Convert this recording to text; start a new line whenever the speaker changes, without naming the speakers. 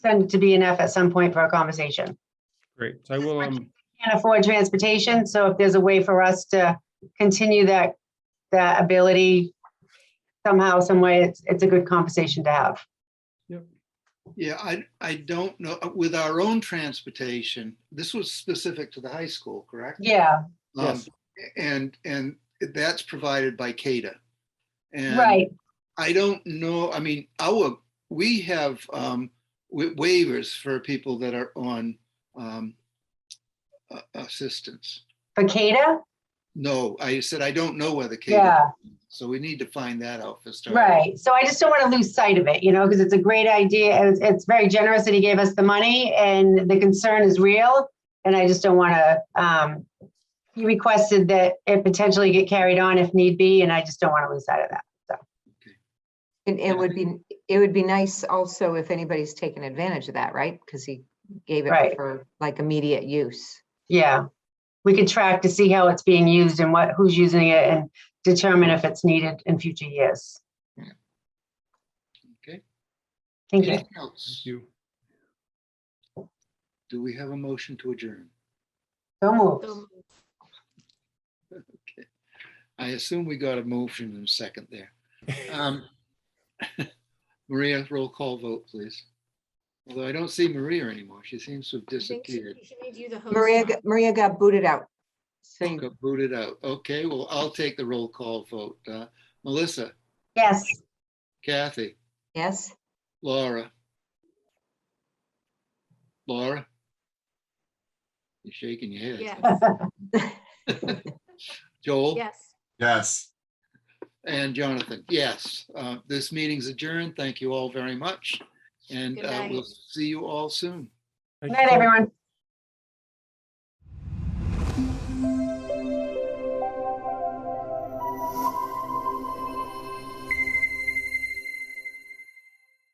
going to be enough at some point for a conversation.
Great. So I will, um,
Can't afford transportation, so if there's a way for us to continue that, that ability somehow, some way, it's, it's a good conversation to have.
Yeah, I, I don't know, uh, with our own transportation, this was specific to the high school, correct?
Yeah,
Um,
Yes.
And, and that's provided by CADA. And
right.
I don't know, I mean, our, we have um, wa- waivers for people that are on um, a- assistance.
For CADA?
No, I said, I don't know whether CADA,
Yeah,
so we need to find that out for starters.
right. So I just don't want to lose sight of it, you know, because it's a great idea. and It's, it's very generous that he gave us the money and the concern is real. And I just don't want to, um, he requested that it potentially get carried on if need be, and I just don't want to lose sight of that.
And
Yeah.
it would be, it would be nice also if anybody's taken advantage of that, right? Because he gave
Right.
it for like immediate use.
Yeah. We could track to see how it's being used and what, who's using it and determine if it's needed in future years.
Okay.
Thank you.
Anything else?
thank you.
Do we have a motion to adjourn?
Don't move.
So
I assume we got a motion in a second there. Um, Maria, roll call vote, please. Although I don't see Maria anymore. She seems to have
I think she
disappeared.
she made you the host.
Maria,
now.
got- Maria got booted out. So you-
Got booted out. Okay, well, I'll take the roll call vote. Uh, Melissa,
Yes.
Kathy,
yes?
Laura. Laura? You're shaking your head.
Yes,
Joel?
yes.
Yes.
And Jonathan, yes, uh, this meeting's adjourned. Thank you all very much. And
Good
uh,
night.
we'll see you all soon.
Thank
Good night,
you so much.
everyone.